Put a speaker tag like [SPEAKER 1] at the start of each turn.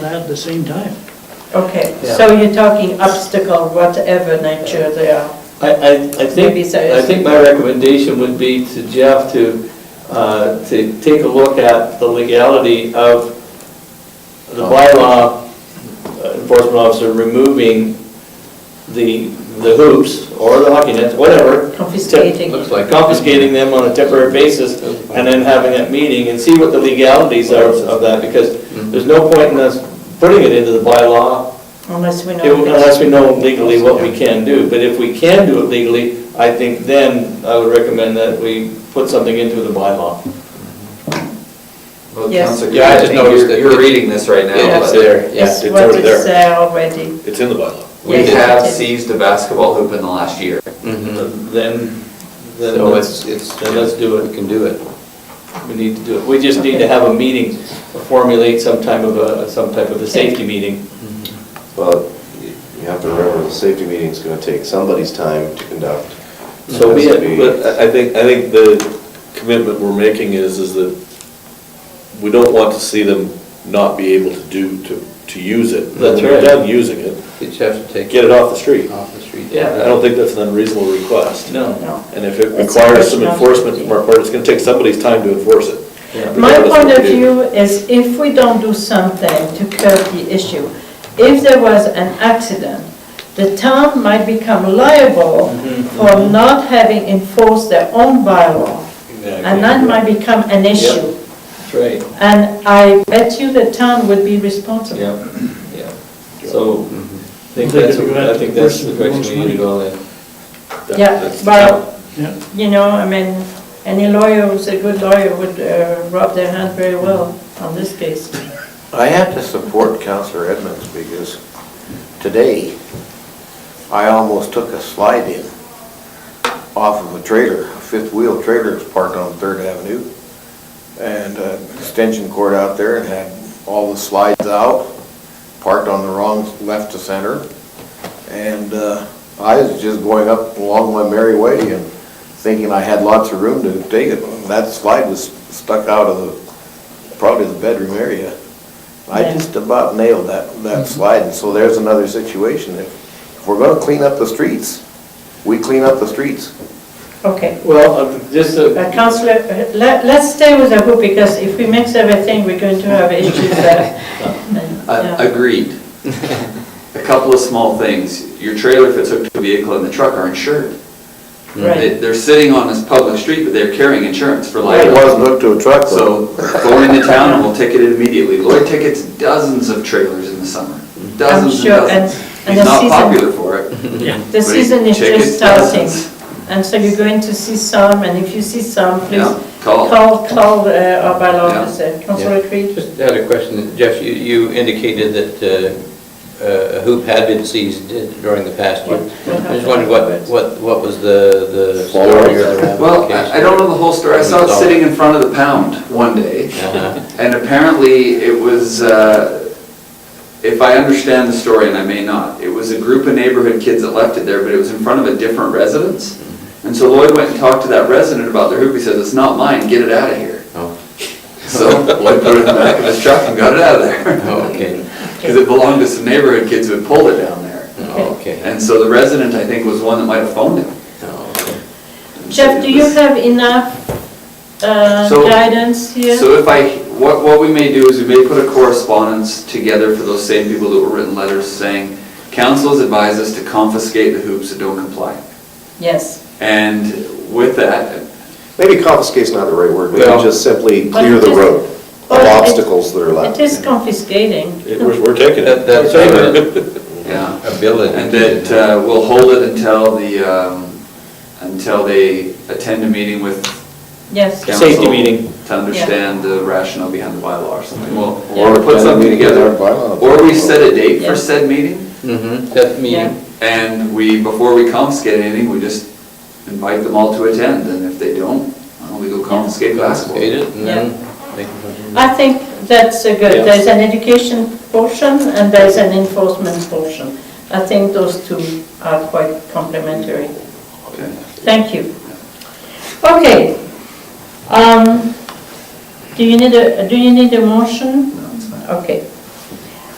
[SPEAKER 1] that at the same time.
[SPEAKER 2] Okay,
[SPEAKER 3] Yeah.
[SPEAKER 2] so you're talking obstacle, whatever nature they are.
[SPEAKER 3] I, I, I think,
[SPEAKER 2] Maybe so,
[SPEAKER 3] I
[SPEAKER 2] yes.
[SPEAKER 3] think my recommendation would be to Jeff to, uh, to take a look at the legality of the bylaw uh, enforcement officer removing the, the hoops or the hockey nets, whatever.
[SPEAKER 2] Confiscating.
[SPEAKER 4] Looks like-
[SPEAKER 3] Confiscating them on a temporary basis and then having that meeting and see what the legalities are of that, because there's no point in us putting it into the bylaw
[SPEAKER 2] Unless we know.
[SPEAKER 3] it- Unless we know legally what we
[SPEAKER 4] Yeah.
[SPEAKER 3] can do, but if we can do it legally, I think then I would recommend that we put something into the bylaw.
[SPEAKER 4] Well,
[SPEAKER 2] Yes.
[SPEAKER 4] Councilor
[SPEAKER 5] Yeah, I just
[SPEAKER 4] Green, think
[SPEAKER 5] noticed
[SPEAKER 4] you're-
[SPEAKER 5] that-
[SPEAKER 4] You're reading this right now.
[SPEAKER 5] Yeah,
[SPEAKER 4] but
[SPEAKER 5] it's there, yeah,
[SPEAKER 2] It's
[SPEAKER 5] it's
[SPEAKER 2] what
[SPEAKER 5] already
[SPEAKER 2] is
[SPEAKER 5] there.
[SPEAKER 2] there already.
[SPEAKER 5] It's in the bylaw.
[SPEAKER 4] We
[SPEAKER 2] Yes,
[SPEAKER 4] have
[SPEAKER 2] it is.
[SPEAKER 4] seized a basketball hoop in the last year.
[SPEAKER 3] Mm-hmm. Then, then
[SPEAKER 4] So it's,
[SPEAKER 3] let's,
[SPEAKER 4] it's.
[SPEAKER 3] then let's do it.
[SPEAKER 4] We can do it.
[SPEAKER 3] we need to do it. We just need to have a meeting, formulate some type of a, some type of a safety meeting.
[SPEAKER 6] Well, you you have to remember, the safety meeting's gonna take somebody's time to conduct.
[SPEAKER 3] So we,
[SPEAKER 6] It has to be-
[SPEAKER 5] But I I think, I think the commitment we're making is, is that we don't want to see them not be able to do, to, to use it.
[SPEAKER 3] That's
[SPEAKER 5] When they're
[SPEAKER 3] right.
[SPEAKER 5] done using it,
[SPEAKER 4] You just have to take.
[SPEAKER 5] get it off the street.
[SPEAKER 4] Off the street.
[SPEAKER 3] Yeah.
[SPEAKER 5] I don't think that's an unreasonable request.
[SPEAKER 3] no,
[SPEAKER 2] No.
[SPEAKER 5] And if it
[SPEAKER 2] It's a
[SPEAKER 5] requires some
[SPEAKER 2] question of-
[SPEAKER 5] enforcement from our part, it's gonna take somebody's time to enforce it.
[SPEAKER 3] yeah.
[SPEAKER 2] My
[SPEAKER 5] Regardless
[SPEAKER 2] point
[SPEAKER 5] what
[SPEAKER 2] of
[SPEAKER 5] we do.
[SPEAKER 2] view is if we don't do something to curb the issue, if there was an accident, the town might become liable
[SPEAKER 5] Mm-hmm,
[SPEAKER 2] for not having enforced their own bylaw. And that might become an issue.
[SPEAKER 3] That's right,
[SPEAKER 2] And I bet you the town would be responsible.
[SPEAKER 3] yeah, yeah. So,
[SPEAKER 5] Mm-hmm.
[SPEAKER 3] I think
[SPEAKER 1] I think if
[SPEAKER 3] that's,
[SPEAKER 1] you have
[SPEAKER 3] I think that's the
[SPEAKER 1] the person who
[SPEAKER 3] direction
[SPEAKER 1] wants
[SPEAKER 3] we need to go in.
[SPEAKER 5] That-
[SPEAKER 2] Yeah,
[SPEAKER 5] that's-
[SPEAKER 2] well,
[SPEAKER 1] Yeah.
[SPEAKER 2] you know, I mean, any lawyer who's a good lawyer would uh, rub their hand very well on this case.
[SPEAKER 7] I have to support Counselor Edmonds because today, I almost took a slide in off of a trailer, a fifth wheel trailer that's parked on Third Avenue. And uh, extension cord out there and had all the slides out, parked on the wrong, left to center. And uh, I was just going up along my merry way and thinking I had lots of room to take it. That slide was stuck out of the, probably the bedroom area. I
[SPEAKER 2] Yeah.
[SPEAKER 7] just about nailed that, that slide, and so there's another situation. If if we're gonna clean up the streets, we clean up the streets.
[SPEAKER 2] Okay.
[SPEAKER 3] Well, uh, just, uh,
[SPEAKER 2] Uh, Councillor, uh, let, let's stay with the hoop because if we mix everything, we're going to have issues there.
[SPEAKER 4] Uh,
[SPEAKER 2] Yeah.
[SPEAKER 4] Agreed. A couple of small things. Your trailer, if it's hooked to a vehicle and the truck are insured. They-
[SPEAKER 2] Right,
[SPEAKER 4] They're sitting on this public street, but they're carrying insurance for
[SPEAKER 7] It
[SPEAKER 4] liability.
[SPEAKER 7] wasn't hooked to a truck,
[SPEAKER 4] So
[SPEAKER 7] though.
[SPEAKER 4] go into town and we'll ticket it immediately. Lloyd tickets dozens of trailers in the summer, dozens and
[SPEAKER 2] sure, and-
[SPEAKER 4] dozens.
[SPEAKER 2] and
[SPEAKER 4] He's
[SPEAKER 2] the
[SPEAKER 4] not
[SPEAKER 2] season-
[SPEAKER 4] popular for it.
[SPEAKER 2] the
[SPEAKER 4] but he
[SPEAKER 2] season is
[SPEAKER 4] tickets
[SPEAKER 2] just starting.
[SPEAKER 4] dozens.
[SPEAKER 2] And so you're going to see some, and if you see some, please
[SPEAKER 4] Yeah, call.
[SPEAKER 2] call, call uh, our bylaw
[SPEAKER 4] Yeah.
[SPEAKER 2] officer. Councillor Creed?
[SPEAKER 3] Just had a question, Jeff, you, you indicated that uh, a hoop had been seized during the past year. I just wondered what, what, what was the, the story or the ramifications?
[SPEAKER 4] Well, I I don't know the whole story. I saw it
[SPEAKER 3] Resolve.
[SPEAKER 4] sitting in front of the pound one day.
[SPEAKER 3] Uh-huh.
[SPEAKER 4] And apparently, it was, uh, if I understand the story, and I may not, it was a group of neighborhood kids that left it there, but it was in front of a different residence. And so Lloyd went and talked to that resident about their hoop. He says, "It's not mine. Get it out of here."
[SPEAKER 3] Oh.
[SPEAKER 4] So Lloyd put it in the back of his truck and got it out of there.
[SPEAKER 3] Oh, okay,
[SPEAKER 4] Because it belonged to some neighborhood kids who had pulled it down there.
[SPEAKER 3] oh, okay.
[SPEAKER 4] And so the resident, I think, was one that might have phoned him.
[SPEAKER 3] Oh, okay.
[SPEAKER 4] And so
[SPEAKER 2] Jeff,
[SPEAKER 4] it
[SPEAKER 2] do you
[SPEAKER 4] was-
[SPEAKER 2] have enough uh,
[SPEAKER 4] So-
[SPEAKER 2] guidance here?
[SPEAKER 4] So if I, what, what we may do is we may put a correspondence together for those same people that were written letters saying, council has advised us to confiscate the hoops that don't comply.
[SPEAKER 2] Yes.
[SPEAKER 4] And with that,
[SPEAKER 6] Maybe confiscate's not the right word, maybe
[SPEAKER 3] Well-
[SPEAKER 6] just simply
[SPEAKER 2] But
[SPEAKER 6] clear the
[SPEAKER 2] it-
[SPEAKER 6] road of
[SPEAKER 2] Well, it-
[SPEAKER 6] obstacles that are
[SPEAKER 2] It
[SPEAKER 6] left.
[SPEAKER 2] is confiscating.
[SPEAKER 5] it- We're, we're taking
[SPEAKER 3] That-
[SPEAKER 5] it.
[SPEAKER 3] That's our
[SPEAKER 4] yeah,
[SPEAKER 3] ability.
[SPEAKER 4] and that uh, we'll hold it until the, um, until they attend a meeting with
[SPEAKER 2] Yes.
[SPEAKER 4] council.
[SPEAKER 3] Safety meeting.
[SPEAKER 4] To understand the rationale behind the bylaw or something. We'll,
[SPEAKER 7] Or
[SPEAKER 4] we'll put
[SPEAKER 7] attend a
[SPEAKER 4] something
[SPEAKER 7] meeting with
[SPEAKER 4] together.
[SPEAKER 7] our bylaw.
[SPEAKER 4] Or we set a date
[SPEAKER 2] Yeah.
[SPEAKER 4] for said meeting.
[SPEAKER 3] hmm that meeting.
[SPEAKER 4] And we, before we confiscate anything, we just invite them all to attend, and if they don't, well, we go
[SPEAKER 3] Confiscate
[SPEAKER 4] confiscate basketball.
[SPEAKER 3] it and then make it.
[SPEAKER 2] I think that's a
[SPEAKER 3] Yeah.
[SPEAKER 2] good, there's an education portion and there's an enforcement portion. I think those two are quite complementary.
[SPEAKER 4] Okay.
[SPEAKER 2] Thank you. Okay. Um, Do you need a, do you need a motion?
[SPEAKER 4] No, it's fine.
[SPEAKER 2] Okay.